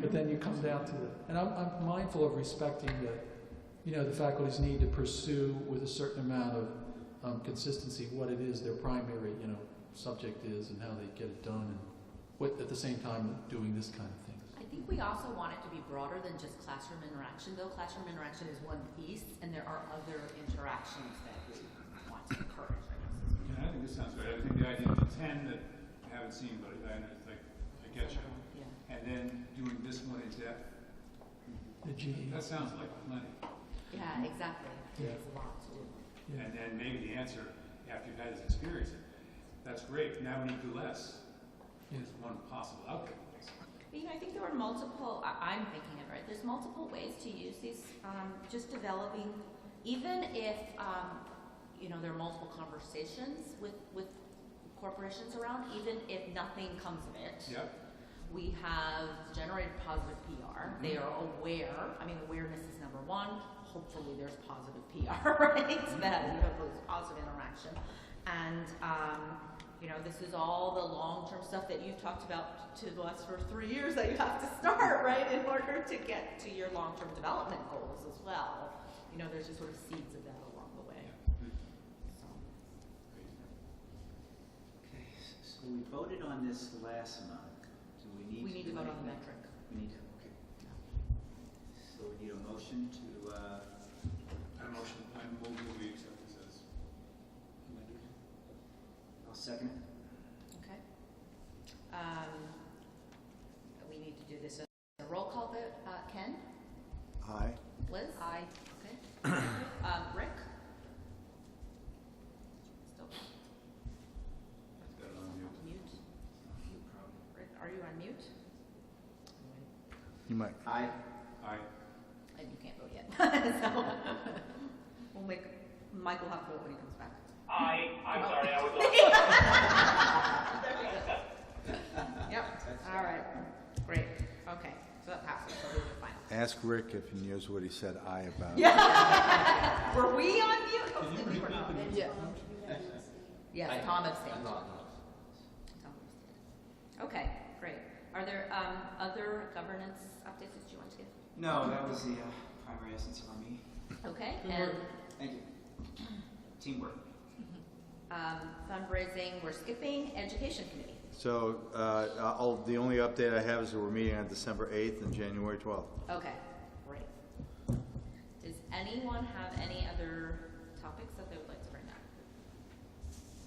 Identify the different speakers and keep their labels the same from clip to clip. Speaker 1: but then you come down to the, and I'm, I'm mindful of respecting the, you know, the faculty's need to pursue with a certain amount of um, consistency what it is their primary, you know, subject is and how they get it done and what, at the same time, doing this kind of thing.
Speaker 2: I think we also want it to be broader than just classroom interaction, though classroom interaction is one piece, and there are other interactions that we want to encourage. I guess, is
Speaker 3: Yeah, I think this sounds great. I think the idea of the ten that I haven't seen, but I, I- like, I get you.
Speaker 2: Yeah.
Speaker 3: And then doing this one in depth,
Speaker 1: The GE.
Speaker 3: that sounds like plenty.
Speaker 2: Yeah, exactly.
Speaker 1: Yeah.
Speaker 2: There's a lot to do.
Speaker 1: Yeah.
Speaker 3: And then maybe the answer, after you've had this experience, that's great, now we need to do less,
Speaker 1: Yeah.
Speaker 3: is one possible outcome.
Speaker 4: But, You know, I think there are multiple, I, I'm thinking of, right, there's multiple ways to use these, um, just developing, even if, um, you know, there are multiple conversations with, with corporations around, even if nothing comes of it.
Speaker 3: Yep,
Speaker 4: We have generated positive PR. They are aware, I mean, awareness is number one. Hopefully there's positive PR, right? That, you know, there's positive interaction. And, um, you know, this is all the long-term stuff that you've talked about to us for three years that you have to start, right? In order to get to your long-term development goals as well. You know, there's just sort of seeds of that along the way, so.
Speaker 5: Okay, s- so we voted on this last month. Do we need to?
Speaker 4: We need to
Speaker 5: do
Speaker 4: vote on the
Speaker 5: anything?
Speaker 4: metric.
Speaker 5: We need to, okay. So we need a motion to, uh,
Speaker 3: I motion, I move that we accept this as amended.
Speaker 5: I'll second it.
Speaker 4: Okay. Um, We need to do this as a roll call vote. Uh, Ken?
Speaker 6: Aye.
Speaker 4: Liz? Aye. Okay. Um, Rick? Still
Speaker 3: Got it on mute.
Speaker 4: mute? Rick, are you on mute?
Speaker 6: You might.
Speaker 5: Aye.
Speaker 3: Aye,
Speaker 4: And you can't vote yet. So, we'll make, Mike will have to vote when he comes back.
Speaker 7: I, I'm
Speaker 4: Oh.
Speaker 7: sorry, I was on.
Speaker 4: Yep, all right. Great, okay. So that passes, so we're final.
Speaker 6: Ask Rick if he knows what he said aye about.
Speaker 4: Were we on mute?
Speaker 3: Did you
Speaker 4: Hopefully we were not.
Speaker 2: Yeah.
Speaker 4: Yes, Tom abstained. Tom abstained. Okay, great. Are there um, other governance updates that you want to give?
Speaker 5: No, that was the uh, primary essence of our meeting.
Speaker 4: Okay, and
Speaker 5: Thank you. Teamwork.
Speaker 4: um, fundraising, we're skipping, education committee.
Speaker 6: So, uh, I'll, the only update I have is that we're meeting on December 8th and January 12th.
Speaker 4: Okay, great. Does anyone have any other topics that they would like to bring up?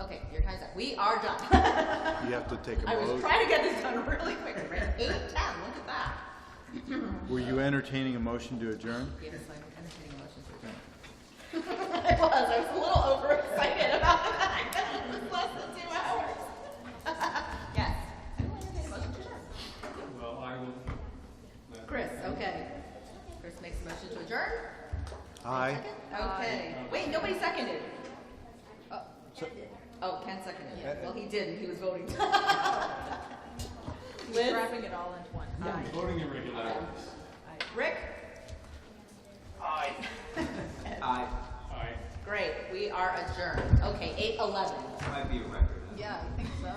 Speaker 4: Okay, your time's up. We are done.
Speaker 6: You have to take a
Speaker 4: I was
Speaker 6: vote.
Speaker 4: trying to get this done really quick, right? Eight, ten, look at that.
Speaker 6: Were you entertaining a motion to adjourn?
Speaker 4: Yes, I'm entertaining a motion to adjourn. I was, I was a little overexcited about the fact that it was less than two hours. Yes. I will entertain a motion to adjourn.
Speaker 3: well, I will. let-
Speaker 4: Chris, okay. Chris makes a motion to adjourn.
Speaker 6: Aye.
Speaker 4: Okay. Wait, nobody seconded. Oh. Oh, Ken seconded. it. Well, he didn't, he was voting. Liz? Wrapping it all into one.
Speaker 3: Voting irregularities.
Speaker 4: Rick?
Speaker 7: Aye.
Speaker 5: Aye.
Speaker 3: Aye.
Speaker 4: Great, we are adjourned. Okay, eight eleven.
Speaker 5: Might be a record. huh?
Speaker 2: Yeah, I think so.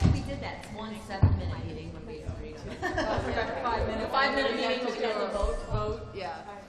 Speaker 4: Well, we did that one seven-minute meeting when we agreed on it.
Speaker 2: Five minutes.
Speaker 4: Five minute meeting
Speaker 2: to
Speaker 4: because of-
Speaker 2: vote, vote, yeah.